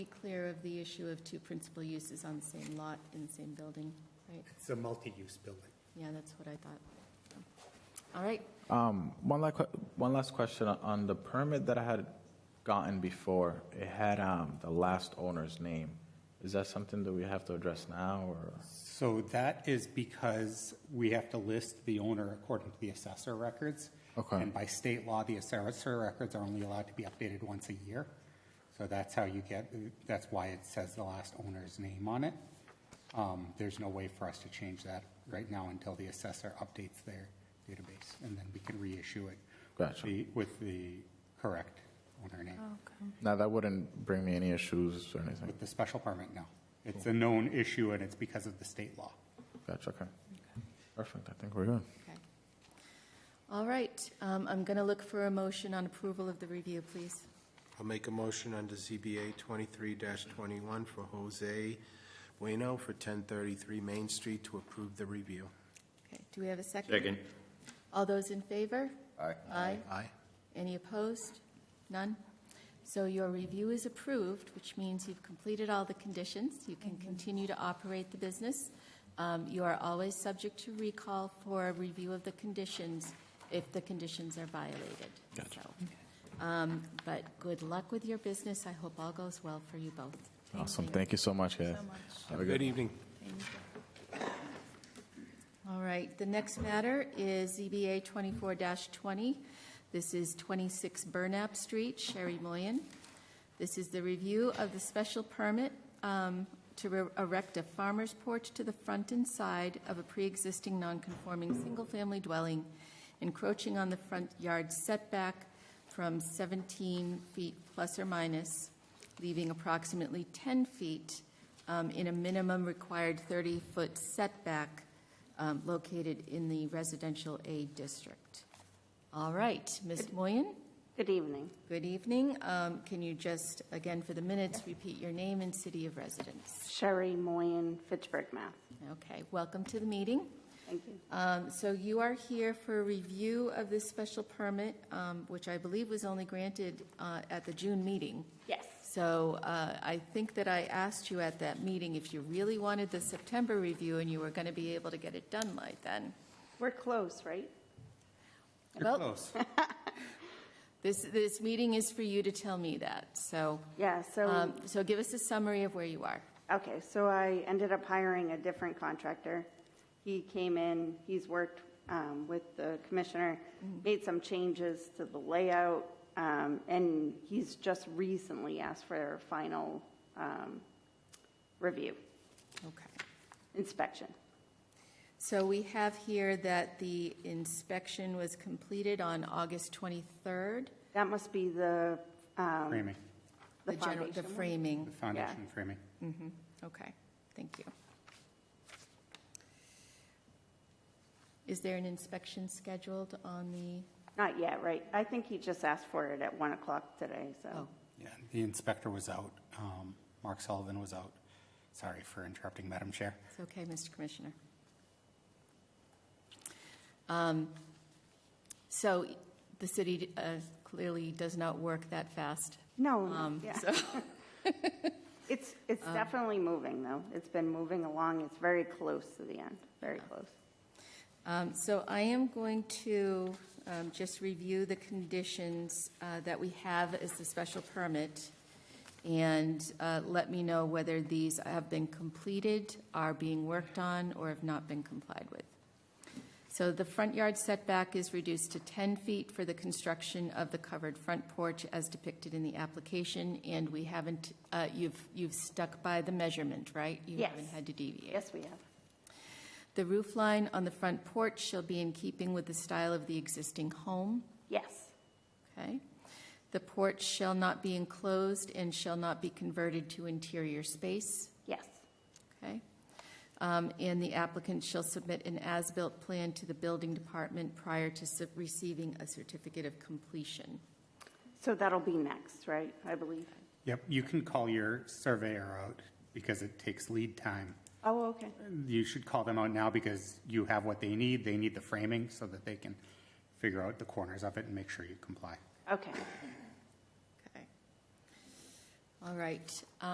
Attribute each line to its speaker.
Speaker 1: Be clear of the issue of two principal uses on the same lot in the same building, right?
Speaker 2: It's a multi-use building.
Speaker 1: Yeah, that's what I thought. All right,
Speaker 3: Um, One last, one last question on the permit that I had gotten before. It had um, the last owner's name. Is that something that we have to address now, or?
Speaker 2: So that is because we have to list the owner according to the assessor records.
Speaker 3: Okay.
Speaker 2: And by state law, the assessor records are only allowed to be updated once a year. So that's how you get, that's why it says the last owner's name on it. Um, There's no way for us to change that right now until the assessor updates their database, and then we can reissue it. with
Speaker 3: Gotcha. Oh.
Speaker 2: the- With the correct owner name.
Speaker 3: Now, that wouldn't bring me any issues or anything.
Speaker 2: With the special permit, no. It's a known issue, and it's because of the state law.
Speaker 3: Gotcha, okay. Perfect, I think we're good.
Speaker 1: okay. All right, um, I'm going to look for a motion on approval of the review, please.
Speaker 4: I'll make a motion under ZBA 23-21 for Jose Bueno for 1033 Main Street to approve the review.
Speaker 1: Okay, do we have a second? All those in favor? Aye. Aye.
Speaker 4: Aye.
Speaker 1: Any opposed? None? So your review is approved, which means you've completed all the conditions. You can continue to operate the business. Um, You are always subject to recall for a review of the conditions if the conditions are violated. Gotcha. But good luck with your business. I hope all goes well for you both.
Speaker 3: Awesome, thank you so much, guys.
Speaker 4: Have a good evening.
Speaker 1: All right, the next matter is E ZBA 24-20. This is 26 Burnap Street, Sherry Moyen. This is the review of the special permit um, to re- erect a farmer's porch to the front and side of a pre-existing non-conforming single-family dwelling encroaching on the front yard setback from 17 feet plus or minus, leaving approximately 10 feet um, in a minimum required 30-foot setback um, located in the residential A district. All right, Ms. Moyen,
Speaker 5: Good evening.
Speaker 1: good evening. Um, Can you just, again, for the minutes, repeat your name and city of residence?
Speaker 5: Sherry Moyen, Fitchburg, Mass.
Speaker 1: Okay, welcome to the meeting.
Speaker 5: Thank you.
Speaker 1: Um, So you are here for a review of this special permit, um, which I believe was only granted uh, at the June meeting.
Speaker 5: Yes.
Speaker 1: So uh, I think that I asked you at that meeting if you really wanted the September review and you were going to be able to get it done like then.
Speaker 5: We're close, right?
Speaker 1: Well,
Speaker 2: Close.
Speaker 1: This, this meeting is for you to tell me that, so,
Speaker 5: Yeah, so,
Speaker 1: um, so give us a summary of where you are.
Speaker 5: okay, so I ended up hiring a different contractor. He came in, he's worked um, with the commissioner, made some changes to the layout, um, and he's just recently asked for a final um, review,
Speaker 1: Okay.
Speaker 5: inspection.
Speaker 1: So we have here that the inspection was completed on August 23rd.
Speaker 5: That must be the, um,
Speaker 2: Framing,
Speaker 5: the
Speaker 1: general-
Speaker 5: foundation
Speaker 1: The
Speaker 5: one? Mm-hmm.
Speaker 2: the
Speaker 1: framing,
Speaker 2: foundation framing.
Speaker 1: okay, thank you. Is there an inspection scheduled on the,
Speaker 5: Not yet, right? I think he just asked for it at 1 o'clock today, so.
Speaker 1: oh,
Speaker 2: Yeah, the inspector was out. Um, Mark Sullivan was out. Sorry for interrupting, Madam Chair.
Speaker 1: it's okay, Mr. Commissioner. Um, So the city uh, clearly does not work that fast.
Speaker 5: No, no,
Speaker 1: Um,
Speaker 5: Oh, yeah.
Speaker 1: So, um,
Speaker 5: It's, it's definitely moving, though. It's been moving along. It's very close to the end, very close.
Speaker 1: um, so I am going to um, just review the conditions uh, that we have as the special permit, and uh, let me know whether these have been completed, are being worked on, or have not been complied with. So the front yard setback is reduced to 10 feet for the construction of the covered front porch as depicted in the application, and we haven't, uh, you've, you've stuck by the measurement, right? You
Speaker 5: Yes.
Speaker 1: haven't had to deviate.
Speaker 5: Yes, we have.
Speaker 1: The roof line on the front porch shall be in keeping with the style of the existing home,
Speaker 5: Yes,
Speaker 1: okay? The porch shall not be enclosed and shall not be converted to interior space,
Speaker 5: yes,
Speaker 1: okay? Um, And the applicant shall submit an as-built plan to the building department prior to sub- receiving a certificate of completion.
Speaker 5: so that'll be next, right, I believe?
Speaker 2: Yep, you can call your surveyor out because it takes lead time.
Speaker 5: Oh, okay,
Speaker 2: You should call them out now because you have what they need. They need the framing so that they can figure out the corners of it and make sure you comply.
Speaker 5: okay.
Speaker 1: Okay. All right.